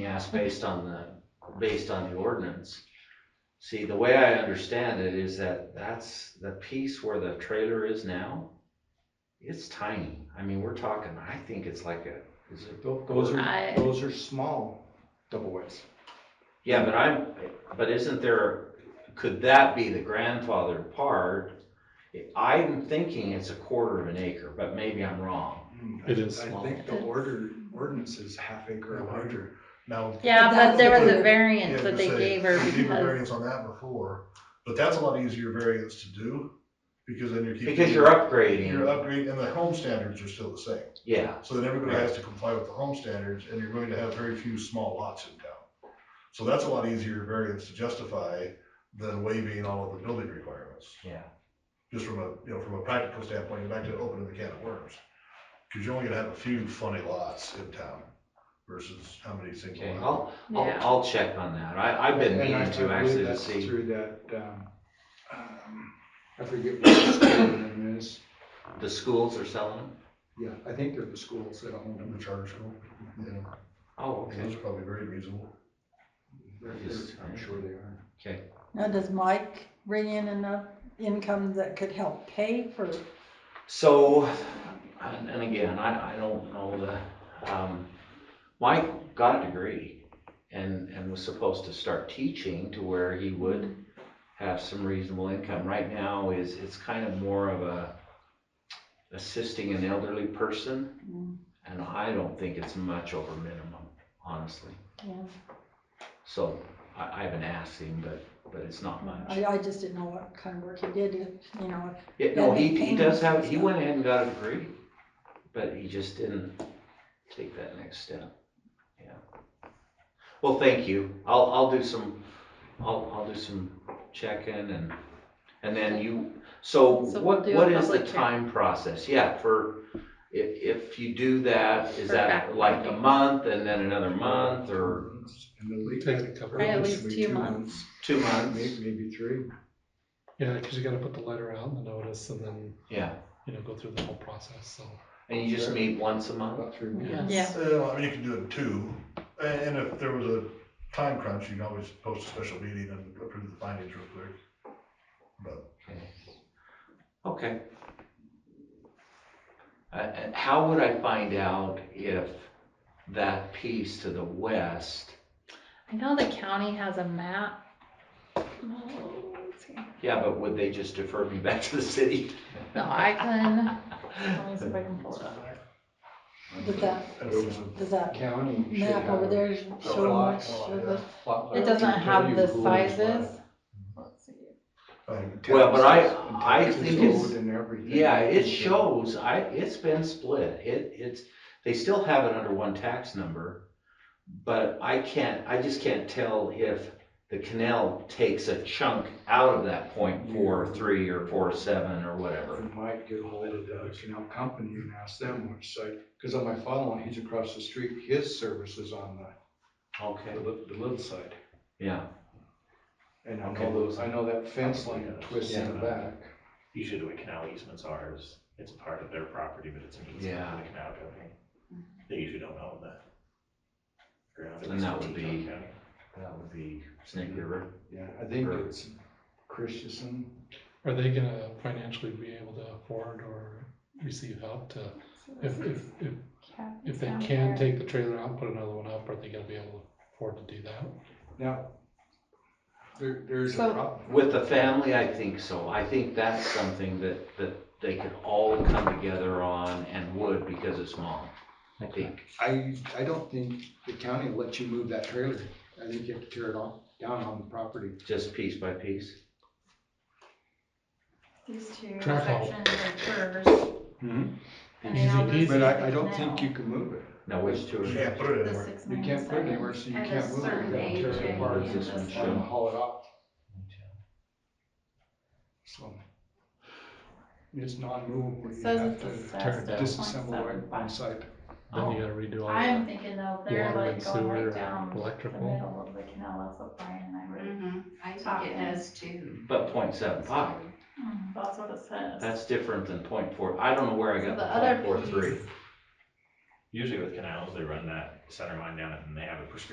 asked based on the, based on the ordinance. See, the way I understand it is that that's the piece where the trailer is now. It's tiny. I mean, we're talking, I think it's like a, is it, Tho- Those are, I- those are small double wides. yeah, but I'm, but isn't there, could that be the grandfather part? I'm thinking it's a quarter of an acre, but maybe I'm wrong. It is small. I think the order, ordinance is half acre or larger. Now. Yeah, but there was a yeah, variance I that was they gonna say, gave her we gave a because, Variance on that before, but that's a lot easier variance to do, because then you're keeping. Because you're You're upgrading, upgrading, and the home standards are still the same, yeah, so then everybody has to comply with the home standards, and you're going to have very few small lots in town. So that's a lot easier variance to justify than waiving all of the building requirements, yeah. just from a, you know, from a practical standpoint, back to opening the can of worms. Cause you're only gonna have a few funny lots in town versus how many single. Okay, lot. I'll, I'll, yeah. I'll check on that. I, I've been And I- I meaning to believe actually to that's see. Through that, um, um, I forget what the school name is. The schools are selling them? Yeah, I think they're the schools that own In them. the charter school, yeah, Oh, and those are probably very reasonable. They're- they're- I'm sure they are. Okay. Now, does Mike bring in enough income that could help pay for, So, and and again, I, I don't know the, um, Mike got a degree and, and was supposed to start teaching to where he would have some reasonable income. Right now is, it's kind of more of a assisting an elderly person. Mm. And I don't think it's much over minimum, honestly. yeah, So I, I haven't asked him, but, but it's not much. I, I just didn't know what kind of work he did, if, you know, Yeah, no, he, he does have, he Yeah. went ahead and got a degree, but he just didn't take that next step, yeah. Well, thank you, I'll, I'll do some, I'll, I'll do some checking and, and then you, so So we'll what, do a what is the public hearing. time process? Yeah, for, if, if you do that, is For that fact like a finding. month and then another month or And the leak- Take a couple Right, at least ordinance would be two two May- months? Maybe three. Yeah, because you gotta put the letter out and the notice and then, Yeah, you know, go through the whole process, so. and you just meet once a month? About three. Yeah. Yeah. Uh, I mean, you can do it in two, and, and if there was a time crunch, you can always post a special meeting and approve the findings real quick. But Okay. Okay. Uh, and how would I find out if that piece to the west, I know the county has a map. Oh, let's see. yeah, but would they just defer me back to the city? No, I can, let me see if I can pull it up. does that, if it was a- does that County should map have over a there lot- show much lot, of the, lot- It doesn't have the sizes. Let's see. um, Well, but I- Taxes- I taxes think it's- owed and everything. Yeah, it shows, I, it's been split, it, it's, they still have it under one tax number. But I can't, I just can't tell if the canal takes a chunk out of that point four, three, or four, seven, or whatever. We might get hold of the canal company and ask them which site, because on my father-in-law, he's across the street, his service is on the- Okay, the, li- the little side. yeah, And I Okay. know those, I know that fence line twists in the back. Usually the way canal easements are is, it's a part of their property, but it's an easement Yeah. for the canal company. They usually don't own the ground. at And least that in would Teton be- County. that would be Snake River. Yeah, I think Or- it's Christensen. Are they gonna financially be able to afford or receive help to, So if, this if, is if, Kathy's if they down can here. take the trailer out, put another one up, are they gonna be able to afford to do that? Now, there, there's a So- problem. With the family, I think so. I think that's something that, that they could all come together on and would because it's small, I think. I, I don't think the county will let you move that trailer. I think you have to tear it off, down on the property. Just piece by piece. These two Track hole. sections are hers. Mhm. And then I'll Easy go peasy. see But if I, they I don't can think now. you can move it. Now, which two You are, can't put it The anywhere. six You can't put it anywhere, so you At a can't move it. You certain gotta tear age, it I apart think, This and one this should. and one. haul it off. So It's non-movable. It You says have it's to assessed at disassemble it 0.75. on site. Then you gotta redo all I'm that. thinking though, they're Water like and going sewer, right and down the electrical. middle of the canal, that's what Brian and I were, Mm-hmm, I think it does too. but point seven five, Mm-hmm. that's what it says. that's different than point four. I don't know where I So got the the other point four three. piece Usually with canals, they run that center line down it and they have a prescription